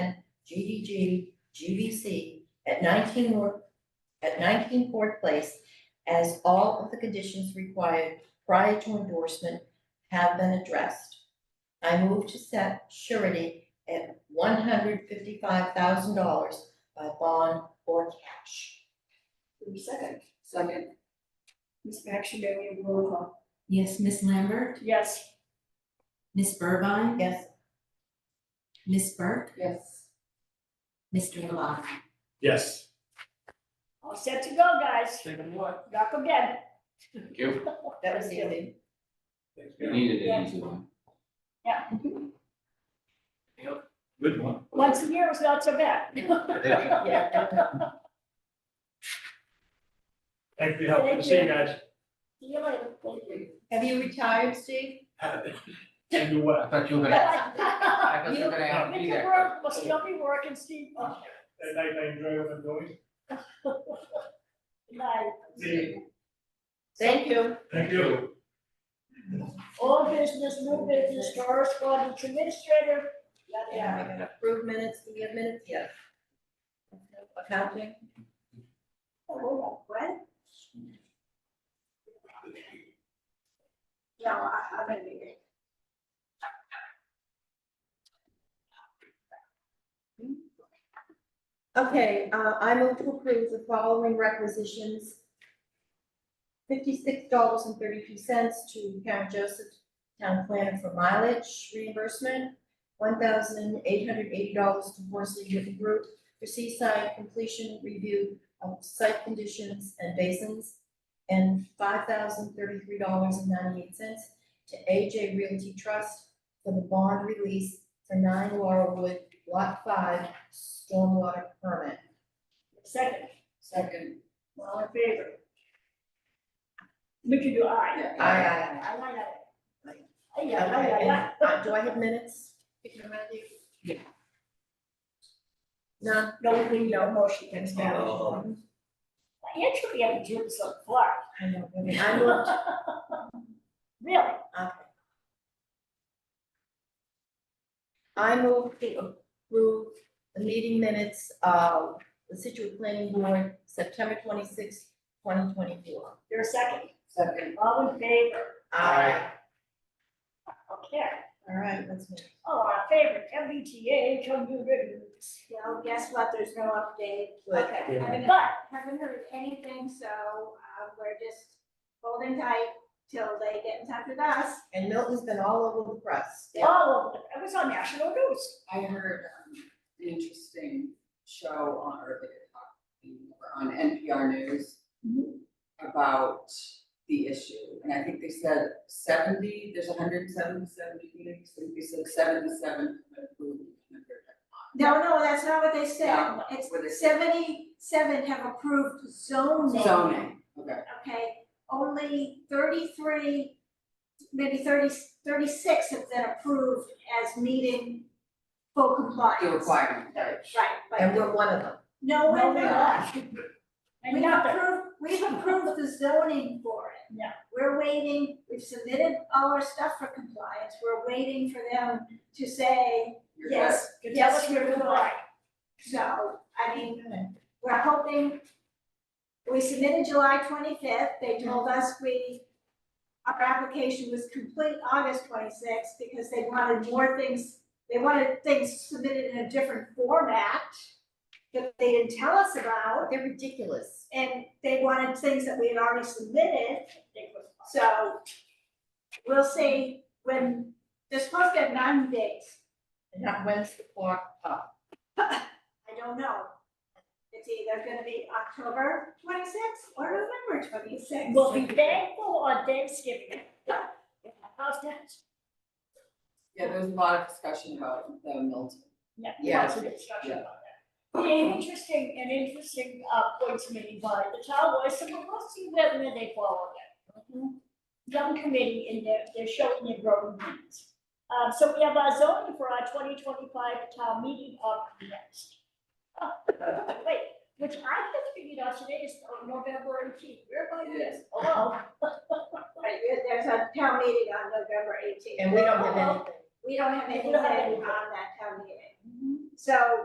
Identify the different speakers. Speaker 1: GDG, GVC at nineteen York, at nineteen Ford Place as all of the conditions required prior to endorsement have been addressed. I move to set surety at one hundred fifty-five thousand dollars by bond or cash.
Speaker 2: Move second. Second. Ms. Maxine, we have roll call.
Speaker 3: Yes, Miss Lambert,
Speaker 2: Yes.
Speaker 3: Miss Burbine,
Speaker 1: Yes,
Speaker 3: Miss Burke,
Speaker 2: Yes.
Speaker 3: Mr. Lot.
Speaker 4: Yes.
Speaker 2: All set to go, guys.
Speaker 4: Second what?
Speaker 2: Rock again.
Speaker 5: Thank you.
Speaker 1: that was easy.
Speaker 5: You needed an easy one.
Speaker 4: Good one.
Speaker 2: Once a year was not so bad.
Speaker 5: Yeah.
Speaker 4: Thank you for your help. Good to see you guys.
Speaker 2: See you later. Thank you.
Speaker 1: Have you retired, Steve?
Speaker 4: And you
Speaker 5: I
Speaker 4: what?
Speaker 5: thought you were gonna,
Speaker 2: Mr.
Speaker 5: I thought you were gonna have to be there.
Speaker 2: Burke will still be working, Steve. Oh,
Speaker 4: At night, I enjoy what I'm doing.
Speaker 2: good night.
Speaker 4: See you.
Speaker 1: Thank you.
Speaker 4: Thank you.
Speaker 2: All business, new business, correspondence, administrator. Yada,
Speaker 1: Yeah,
Speaker 2: yada.
Speaker 1: we're gonna approve minutes, do we have minutes? Yes. Accounting?
Speaker 2: Oh, hold on. What? No, I, I'm gonna be there.
Speaker 1: Okay, uh, I move to approve the following requisitions. Fifty-six dollars and thirty-two cents to Karen Joseph, town planner for mileage reimbursement. One thousand eight hundred eighty dollars to Horsley River Group for seaside completion review of site conditions and basins. And five thousand thirty-three dollars and ninety-eight cents to AJ Realty Trust for the bond release for nine Laurelwood, lot five, stormwater permit.
Speaker 2: Second,
Speaker 1: Second.
Speaker 2: all in favor? We can do aye.
Speaker 1: Aye, aye,
Speaker 2: Aye, aye, aye.
Speaker 1: Aye. aye.
Speaker 2: Aye, aye, aye,
Speaker 1: Okay,
Speaker 2: aye.
Speaker 1: and, uh, do I have minutes? Picking around you?
Speaker 3: Yeah.
Speaker 1: No,
Speaker 2: No, we need a motion, thanks,
Speaker 5: Oh,
Speaker 2: Matt.
Speaker 5: oh, oh.
Speaker 2: Actually, I do this so far.
Speaker 1: I know, I mean, I moved,
Speaker 2: Really?
Speaker 1: I moved to approve the meeting minutes of the Situate Planning Board, September twenty-sixth, twenty twenty-four.
Speaker 2: You're second.
Speaker 1: Second.
Speaker 2: All in favor?
Speaker 1: Aye.
Speaker 2: Okay.
Speaker 1: All right, let's move.
Speaker 2: Oh, our favorite, MBTA, come do business. Well, guess what? There's no update.
Speaker 1: Good.
Speaker 6: Okay,
Speaker 4: Yeah.
Speaker 6: haven't, haven't heard anything, so, uh, we're just holding tight till they get in touch with us.
Speaker 1: And Milton's been all over the press.
Speaker 2: Oh, it was on national news.
Speaker 7: I heard um, an interesting show on, or they were talking, or on NPR News about the issue, and I think they said seventy, there's hundred and seventy, seventy meetings, and they said seventy-seven have approved. and
Speaker 6: No, no, that's not what they said.
Speaker 7: No,
Speaker 6: It's
Speaker 7: what they said.
Speaker 6: seventy-seven have approved zoning.
Speaker 7: 100. Zoning, okay,
Speaker 6: Okay, only thirty-three, maybe 30 36 have been approved as meeting full compliance.
Speaker 7: the requirement, right.
Speaker 6: Right,
Speaker 1: And
Speaker 6: but
Speaker 1: we're one of them.
Speaker 6: no one,
Speaker 2: No, we're
Speaker 6: no,
Speaker 2: not. And
Speaker 6: We've
Speaker 2: nothing.
Speaker 6: approved, we've approved the zoning for it.
Speaker 2: Yeah.
Speaker 6: We're waiting, we've submitted all our stuff for compliance, we're waiting for them to say,
Speaker 7: You're good.
Speaker 6: yes,
Speaker 2: Good, tell
Speaker 6: yes,
Speaker 2: us
Speaker 6: you're
Speaker 2: your
Speaker 6: good.
Speaker 2: goodbye.
Speaker 6: So, I mean,
Speaker 1: Okay.
Speaker 6: we're hoping, we submitted July twenty-fifth, they told
Speaker 2: Mm-hmm.
Speaker 6: us we, our application was complete August twenty-sixth, because they wanted more things, they wanted things submitted in a different format that they didn't tell us about.
Speaker 1: They're ridiculous.
Speaker 6: And they wanted things that we had already submitted,
Speaker 2: It was fun.
Speaker 6: so we'll see when, they're supposed to have ninety days,
Speaker 1: And that when's the uh, clock up?
Speaker 6: I don't know. It's either gonna be October twenty-sixth or November twenty-sixth.
Speaker 2: We'll be thankful on Thanksgiving. How's that?
Speaker 7: Yeah, there was a lot of discussion about the Milton.
Speaker 2: Yeah,
Speaker 7: Yeah.
Speaker 2: lots of discussion about that. The interesting, an interesting, uh, points made by the town was, so we'll see whether they follow
Speaker 7: Mm-hmm.
Speaker 2: that. Young committee in their, they're showing their growing needs. Um, so we have our zoning for our twenty twenty-five town meeting up next. Oh, Wait, which I just figured out today is uh, November eighteenth, where am I this? Oh,
Speaker 6: Right, there- there's a town meeting on November eighteenth.
Speaker 1: And we don't have anything.
Speaker 6: We don't have anything
Speaker 2: We don't have
Speaker 6: on
Speaker 2: anything.
Speaker 6: that town meeting. So